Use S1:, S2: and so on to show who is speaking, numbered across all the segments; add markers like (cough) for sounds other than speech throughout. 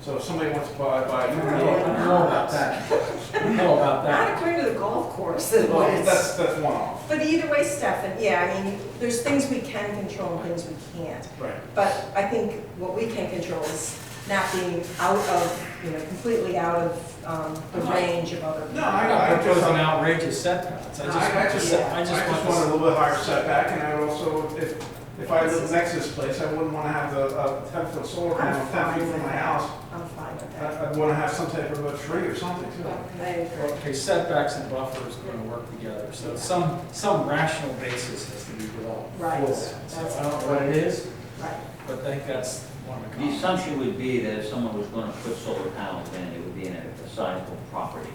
S1: So if somebody wants to buy, buy,
S2: You
S1: you
S2: know
S1: about that. You know about that.
S2: Not according to the golf course, it
S1: Well,
S2: was.
S1: that's, that's one off.
S2: But either way, Stefan, yeah, I mean, there's things we can control and things we can't.
S1: Right.
S2: But I think what we can control is not being out of, you know, completely out of um, the
S3: Uh-huh.
S2: range of other.
S1: No,
S4: I'm
S1: I, I
S4: not
S1: just,
S4: proposing
S1: I
S4: outrageous setbacks, I just
S1: I
S4: want
S1: just,
S4: to,
S1: I just
S4: want
S1: want a
S4: to.
S1: little bit higher setback, and I also, if, if I lived next to this place, I wouldn't wanna have the, a ten foot solar panel,
S2: I'm
S1: ten
S2: fine
S1: feet
S2: with
S1: from my
S2: that.
S1: house.
S2: I'm fine with
S1: I,
S2: that.
S1: I'd wanna have some type of a tree or something too.
S2: I
S3: Oh,
S2: agree.
S4: Okay, setbacks and buffers are gonna work together, so some, some rational basis has to be developed. for
S2: Right,
S4: that.
S2: that's-
S4: So I don't know what it is,
S2: Right.
S4: but I think that's one of the.
S3: The assumption would be that if someone was gonna put solar panels in, it would be in a sizable property.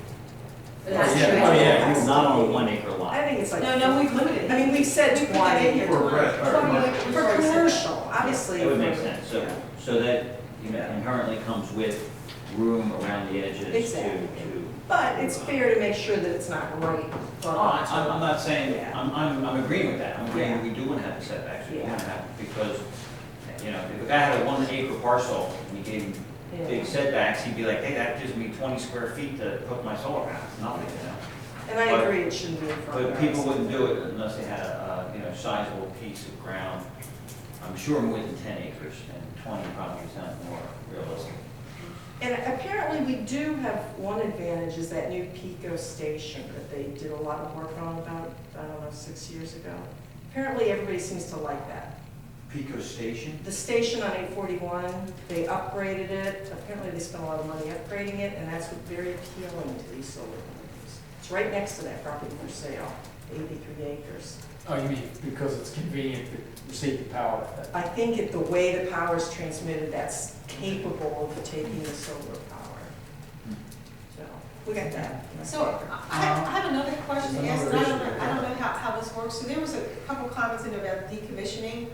S2: That's
S4: yeah.
S2: true.
S4: Oh, yeah.
S2: That's-
S3: Not on a one acre
S2: I
S3: lot.
S2: think it's like.
S5: No, no, we've limited.
S2: I mean, we've said
S5: We put that in
S2: twenty.
S5: here.
S1: Or red, or mustard.
S2: For commercial, obviously.
S3: That would make sense, so,
S2: Yeah.
S3: so that you know, inherently comes with room around the edges to,
S2: Exactly.
S3: to.
S2: But it's fair to make sure that it's not right. for-
S3: Oh, I- I'm, I'm not saying,
S2: Yeah.
S3: I'm, I'm, I'm agreeing with that, I'm
S2: Yeah.
S3: agreeing, we do wanna have the setbacks, we
S2: Yeah.
S3: wanna have, because, you know, if a guy had a one acre parcel, and you gave him
S2: Yeah.
S3: big setbacks, he'd be like, hey, that gives me twenty square feet to put my solar panels, nothing, you know?
S2: And I agree, it shouldn't be in front of
S3: But
S2: us.
S3: people wouldn't do it unless they had a, a, you know, sizable piece of ground, I'm sure more than ten acres, and twenty probably sounds more realistic.
S2: And apparently, we do have one advantage, is that new Pico station that they did a lot of work on about, I don't know, six years ago. Apparently, everybody seems to like that.
S3: Pico Station?
S2: The station on eight forty-one, they upgraded it, apparently they spent a lot of money upgrading it, and that's what's very appealing to these solar companies. It's right next to that property for sale, eighty-three acres.
S4: Oh, you mean because it's convenient to receive the power at that
S2: I think it the way the power is transmitted, that's capable of taking the solar power. So, we got that.
S5: So I- I have- I have another question to ask, and I don't know, I don't know how, how this works. So there was a couple comments in about decommissioning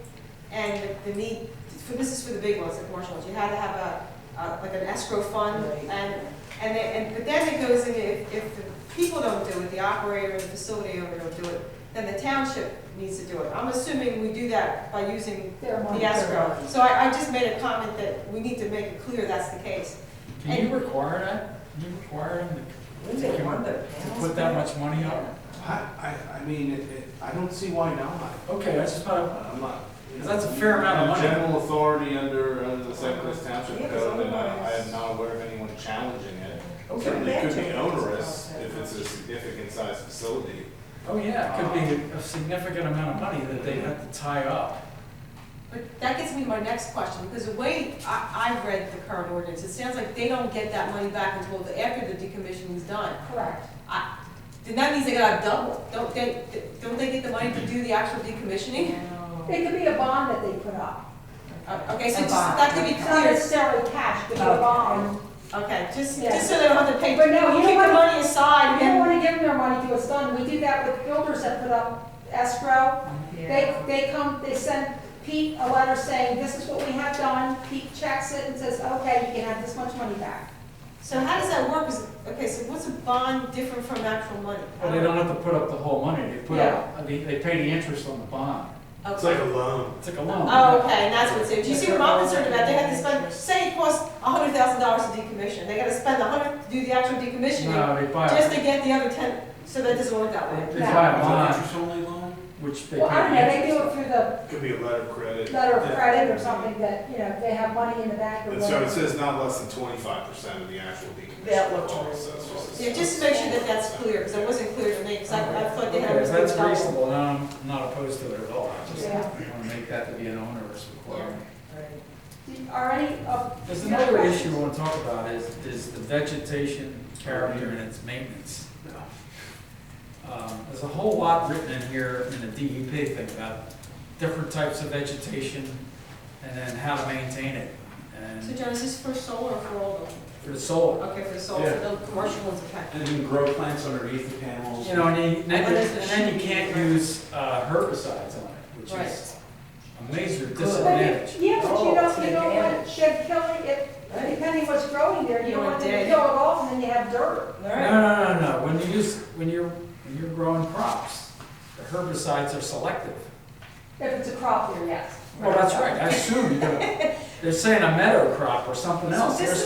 S5: and the need, for, this is for the big ones, the commercial ones. You had to have a, a- like an escrow fund
S2: Right.
S5: um, and, and then, and, but then it goes in, if, if the people don't do it, the operator and the facility owner don't do it, then the township needs to do it. I'm assuming we do that by using the escrow. So I, I just made a comment that we need to make it clear that's the case.
S4: Can you require that? Can you require them
S2: Wouldn't they want the
S4: to
S2: panels
S4: put that
S2: back?
S4: much money up?
S6: I, I, I mean, it, it, I don't see why not.
S4: Okay, that's just not,
S6: I'm not. you know,
S4: That's a fair amount of money.
S6: General authority under, under the St. Louis
S2: Yeah,
S6: Township
S2: it's
S6: Code, and I, I
S2: otherwise-
S6: am not aware of anyone challenging it.
S2: Okay.
S6: Certainly could be
S2: Imagine.
S6: onerous if it's a significant sized facility.
S4: oh yeah, it could be a significant amount of money that they have to tie up.
S5: But that gets me to my next question, because the way I, I've read the current ordinance, it sounds like they don't get that money back until the- after the decommissioning's done.
S2: Correct.
S5: I, then that means they gotta double, don't they, don't they get the money to do the actual decommissioning?
S7: It could be a bond that they put up,
S5: Uh, Okay, so
S2: A
S5: just,
S2: bond.
S5: that could be
S7: not
S5: clear,
S7: necessarily cash, but a
S2: Okay.
S7: bond.
S5: okay, just,
S7: Yeah.
S5: just so they don't have to pay,
S7: But no, you
S5: keep
S7: don't
S5: the
S7: wanna-
S5: money aside,
S7: We don't
S5: and
S7: wanna give them their money till it's done, we do that with builders that put up escrow. They, they come, they send Pete a letter saying, this is what we have done, Pete checks it and says, okay, you can have this much money back.
S5: so how does that work? Is- Okay, so what's a bond different from actual money?
S4: Well, they don't have to put up the whole money, they put up, I mean, they pay the interest on the bond.
S5: Okay.
S6: a loan.
S4: It's like a loan.
S5: Oh, okay, and that's what's in, do you see what I'm concerned about, they have to spend, say it costs a hundred thousand dollars to decommission, they gotta spend a hundred to do the actual decommissioning,
S4: No, they buy,
S5: just
S4: a-
S5: to get the other ten, so that doesn't work that way.
S4: they buy a bond,
S1: Interest only loan?
S4: which they pay
S7: Well, I don't know,
S4: the
S7: they do
S4: interest.
S7: it through the
S6: Could be a letter of credit.
S7: letter of
S6: Yeah.
S7: credit or something that, you know, they have money in the bank or
S6: And so it
S7: whatever.
S6: says not less than twenty-five percent of the actual decommission.
S2: That looked
S5: Yeah, just to make sure that that's clear, because it wasn't clear to me, because I, I thought they had
S4: Okay,
S5: to
S4: if
S5: do
S4: that's
S5: double.
S4: reasonable, then I'm not opposed to it at all, I just
S7: Yeah.
S4: wanna make that to be an onerous requirement.
S7: Are any of?
S4: There's another issue I want to talk about is, is the vegetation character and its maintenance. Um, There's a whole lot written in here in the DEP thing about different types of vegetation and then how to maintain it.
S5: So
S4: And
S5: John, is this for solar or for all of them?
S4: for the solar,
S5: Okay, for solar,
S1: Yeah.
S5: the commercial ones, okay.
S1: And you can grow plants underneath the panels.
S4: you know, and you- and then,
S5: What is the
S4: and then you
S5: sheep?
S4: can't use uh, herbicides on it, which is
S5: Right.
S4: a major
S7: But
S4: disadvantage.
S7: if- Yeah, but
S2: Oh,
S7: you
S2: it's
S7: don't,
S2: an
S7: you don't want
S2: advantage.
S7: shed killing, if, depending what's growing there, you
S5: You
S7: don't
S5: want
S7: want them to
S5: dead.
S7: kill it all and then you have dirt.
S2: All
S4: No,
S2: right.
S4: no, no, no, when you use, when you're, when you're growing crops, the herbicides are selective.
S7: If it's a crop there, yes.
S2: (laughs)
S4: Well, that's right, I assume you're gonna, they're saying a meadow crop or something
S2: So
S4: else.
S2: this
S4: They're
S2: is